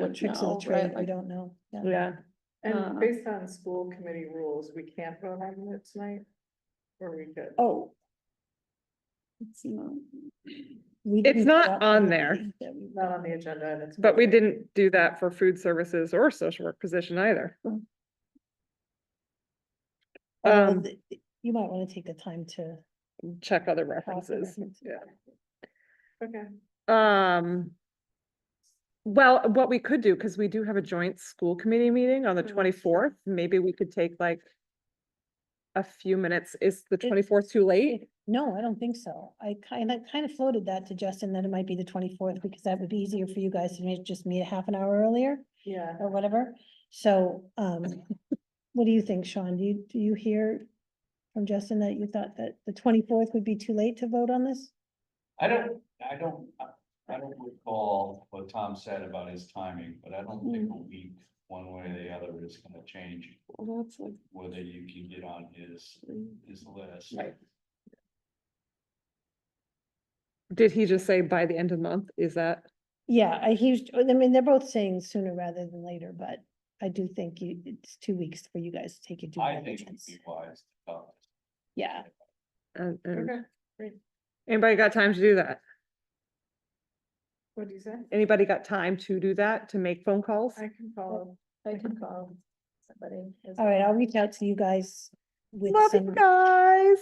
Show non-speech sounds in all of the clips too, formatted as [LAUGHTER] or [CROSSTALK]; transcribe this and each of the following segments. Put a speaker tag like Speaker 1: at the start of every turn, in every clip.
Speaker 1: don't
Speaker 2: Tricks of
Speaker 1: know,
Speaker 2: the trade, we
Speaker 1: right?
Speaker 2: don't know. Yeah.
Speaker 1: Yeah, Uh,
Speaker 3: And based on school committee rules, we can't vote on it tonight? Or we could?
Speaker 1: oh. It's not-
Speaker 2: We
Speaker 4: It's
Speaker 2: didn't
Speaker 4: not
Speaker 2: drop
Speaker 4: on
Speaker 2: the
Speaker 4: there,
Speaker 2: money that we-
Speaker 3: Not on the agenda and it's.
Speaker 4: But we didn't do that for food services or social work position either.
Speaker 2: Well,
Speaker 4: Um,
Speaker 2: th- You might want to take the time to.
Speaker 4: check other
Speaker 2: talk to
Speaker 4: references.
Speaker 2: reference.
Speaker 4: yeah.
Speaker 3: Okay.
Speaker 4: Um. Well, what we could do, because we do have a joint school committee meeting on the
Speaker 3: Mhm.
Speaker 4: twenty-fourth, maybe we could take like. A few minutes. Is the
Speaker 2: It-
Speaker 4: twenty-fourth too late?
Speaker 2: No, I don't think so. I kind of, kind of floated that to Justin that it might be the twenty-fourth because that would be easier for you guys to ma- just meet a half an hour earlier
Speaker 3: Yeah,
Speaker 2: or whatever. So,
Speaker 4: [LAUGHS]
Speaker 2: um, what do you think, Sean? Do you, do you hear from Justin that you thought that the twenty-fourth would be too late to vote on this?
Speaker 5: I don't, I don't, I don't recall what Tom said about his timing, but I don't think a
Speaker 6: Mm.
Speaker 5: week, one way or the other is gonna change
Speaker 1: Well, that's like
Speaker 5: whether you can get on his,
Speaker 1: three.
Speaker 5: his list.
Speaker 1: Right.
Speaker 4: Did he just say by the end of the month? Is that?
Speaker 2: Yeah, I, he's, I mean, they're both saying sooner rather than later, but I do think you, it's two weeks for you guys to take your due
Speaker 5: I think it'd
Speaker 2: diligence.
Speaker 5: be wise to talk.
Speaker 2: Yeah,
Speaker 4: uh, uh,
Speaker 3: okay.
Speaker 4: Anybody got time to do that?
Speaker 3: What do you say?
Speaker 4: Anybody got time to do that, to make phone calls?
Speaker 3: I can follow.
Speaker 1: I can call somebody. as
Speaker 2: all right,
Speaker 1: well.
Speaker 2: I'll reach out to you guys with
Speaker 4: Love you
Speaker 2: some,
Speaker 4: guys.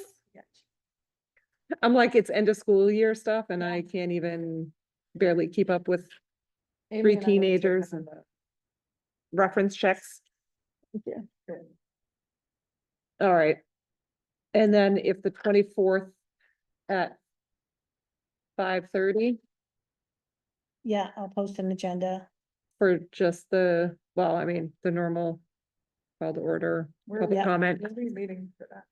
Speaker 4: I'm like, it's end of school year stuff and I can't even barely keep up with
Speaker 3: Amy and
Speaker 4: Three
Speaker 3: I will take
Speaker 4: teenagers
Speaker 3: on
Speaker 4: and-
Speaker 3: that.
Speaker 4: reference checks.
Speaker 3: Good.
Speaker 4: All right. And then if the twenty-fourth at five thirty
Speaker 2: yeah, I'll post an agenda.
Speaker 4: for just the, well, I mean, the normal call to order,
Speaker 3: We're-
Speaker 4: public
Speaker 2: yeah.
Speaker 4: comment.
Speaker 3: We'll be meeting for that.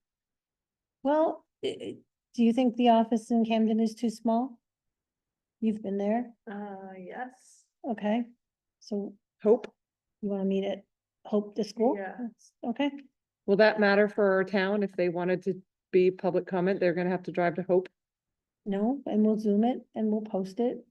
Speaker 2: Well, i- i- do you think the office in Camden is too small? You've been there,
Speaker 3: Uh, yes.
Speaker 2: okay, so
Speaker 4: Hope,
Speaker 2: you wanna meet at Hope the School?
Speaker 3: Yeah.
Speaker 2: Okay,
Speaker 4: will that matter for our town? If they wanted to be public comment, they're gonna have to drive to Hope.
Speaker 2: no, and we'll zoom it and we'll post it,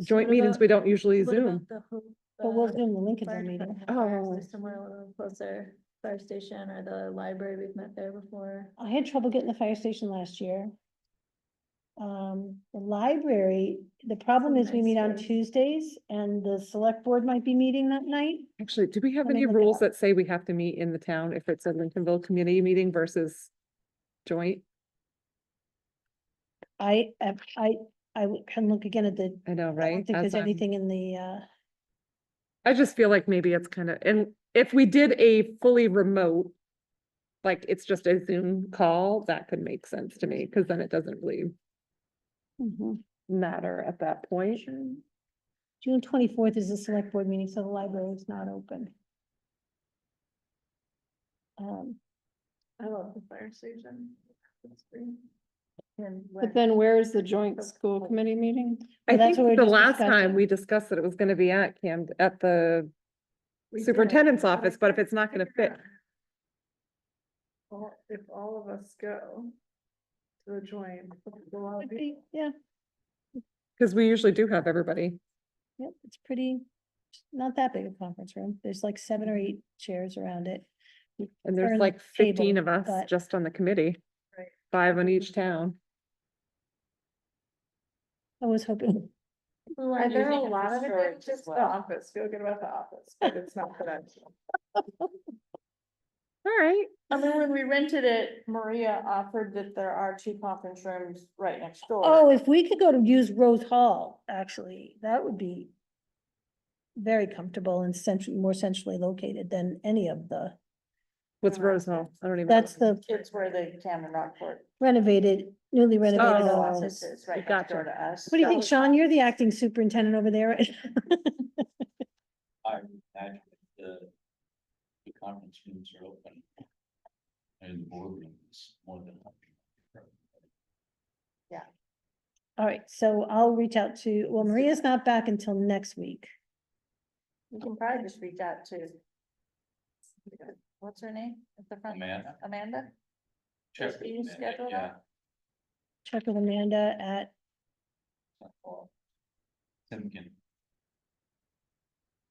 Speaker 4: Joint
Speaker 1: What
Speaker 4: meetings,
Speaker 1: about-
Speaker 4: we don't usually
Speaker 1: What about
Speaker 4: Zoom.
Speaker 1: the Hope,
Speaker 2: but we'll
Speaker 1: uh,
Speaker 2: zoom the Lincoln
Speaker 1: fire
Speaker 2: meeting.
Speaker 1: department? Or is
Speaker 4: Oh.
Speaker 1: there Somewhere a little closer, fire station or the library, we've met there before.
Speaker 2: I had trouble getting the fire station last year. Um, the library, the problem is we
Speaker 1: nice
Speaker 2: meet on
Speaker 1: space.
Speaker 2: Tuesdays and the select board might be meeting that night.
Speaker 4: Actually, do we have
Speaker 2: Let me
Speaker 4: any
Speaker 2: look it
Speaker 4: rules
Speaker 2: up.
Speaker 4: that say we have to meet in the town if it's a Lincolnville community meeting versus joint?
Speaker 2: I, I, I, I w- can look again at the,
Speaker 4: I know,
Speaker 2: I
Speaker 4: right?
Speaker 2: don't think
Speaker 4: As
Speaker 2: there's
Speaker 4: I'm-
Speaker 2: anything in the, uh,
Speaker 4: I just feel like maybe it's kind of, and if we did a fully remote, like it's just a Zoom call, that could make sense to me, because then it doesn't really
Speaker 2: Mm-hmm.
Speaker 4: matter at that point.
Speaker 2: June twenty-fourth is the select board meeting, so the library is not open. Um,
Speaker 3: I love the fire station. It's great.
Speaker 1: And
Speaker 7: But
Speaker 1: when-
Speaker 7: then where is the joint
Speaker 1: the
Speaker 7: school
Speaker 1: whole-
Speaker 7: committee meeting?
Speaker 4: I
Speaker 2: that's
Speaker 4: think
Speaker 2: what we were
Speaker 4: the
Speaker 2: just
Speaker 4: last time
Speaker 2: discussing.
Speaker 4: we discussed that it was gonna be at Cam, at the
Speaker 3: We did.
Speaker 4: superintendent's office, but if it's not gonna
Speaker 3: figure
Speaker 4: fit,
Speaker 3: out. Well, if all of us go to the joint, we'll all
Speaker 2: would
Speaker 3: be-
Speaker 2: be- yeah,
Speaker 4: because we usually do have everybody.
Speaker 2: yep, it's pretty, it's not that big a conference room. There's like seven or eight chairs around it.
Speaker 4: And
Speaker 2: Or
Speaker 4: there's
Speaker 2: the
Speaker 4: like fifteen of
Speaker 2: table,
Speaker 4: us
Speaker 2: but-
Speaker 4: just on the committee.
Speaker 3: Right.
Speaker 4: Five on each town.
Speaker 2: I was hoping,
Speaker 3: Are there a lot of it? Just the office, feel good about the office, but it's not for [LAUGHS] that.
Speaker 4: All right.
Speaker 6: And then when we rented it, Maria offered that there are two conference rooms right next door.
Speaker 2: oh, if we could go to use Rose Hall, actually, that would be very comfortable and centrally, more centrally located than any of the,
Speaker 4: What's Rose Hall? I don't even.
Speaker 2: that's
Speaker 4: know.
Speaker 2: the
Speaker 6: It's where the Camden Rockport.
Speaker 2: renovated, newly renovated
Speaker 4: Oh.
Speaker 2: office.
Speaker 6: office is right next
Speaker 4: gotcha.
Speaker 6: door to us.
Speaker 2: What do you think,
Speaker 6: So-
Speaker 2: Sean? You're the acting superintendent over there. [LAUGHS]
Speaker 5: I would imagine the, the conference rooms are open. And the boardroom is more than. open.
Speaker 2: All right, so I'll reach out to, well, Maria's not back until next week.
Speaker 6: You can probably just reach out to. What's her name? At the front?
Speaker 5: Amanda?
Speaker 6: Amanda?
Speaker 5: Check
Speaker 6: Just you
Speaker 5: with Amanda,
Speaker 6: schedule
Speaker 5: yeah.
Speaker 2: Check with Amanda at,
Speaker 5: Tim can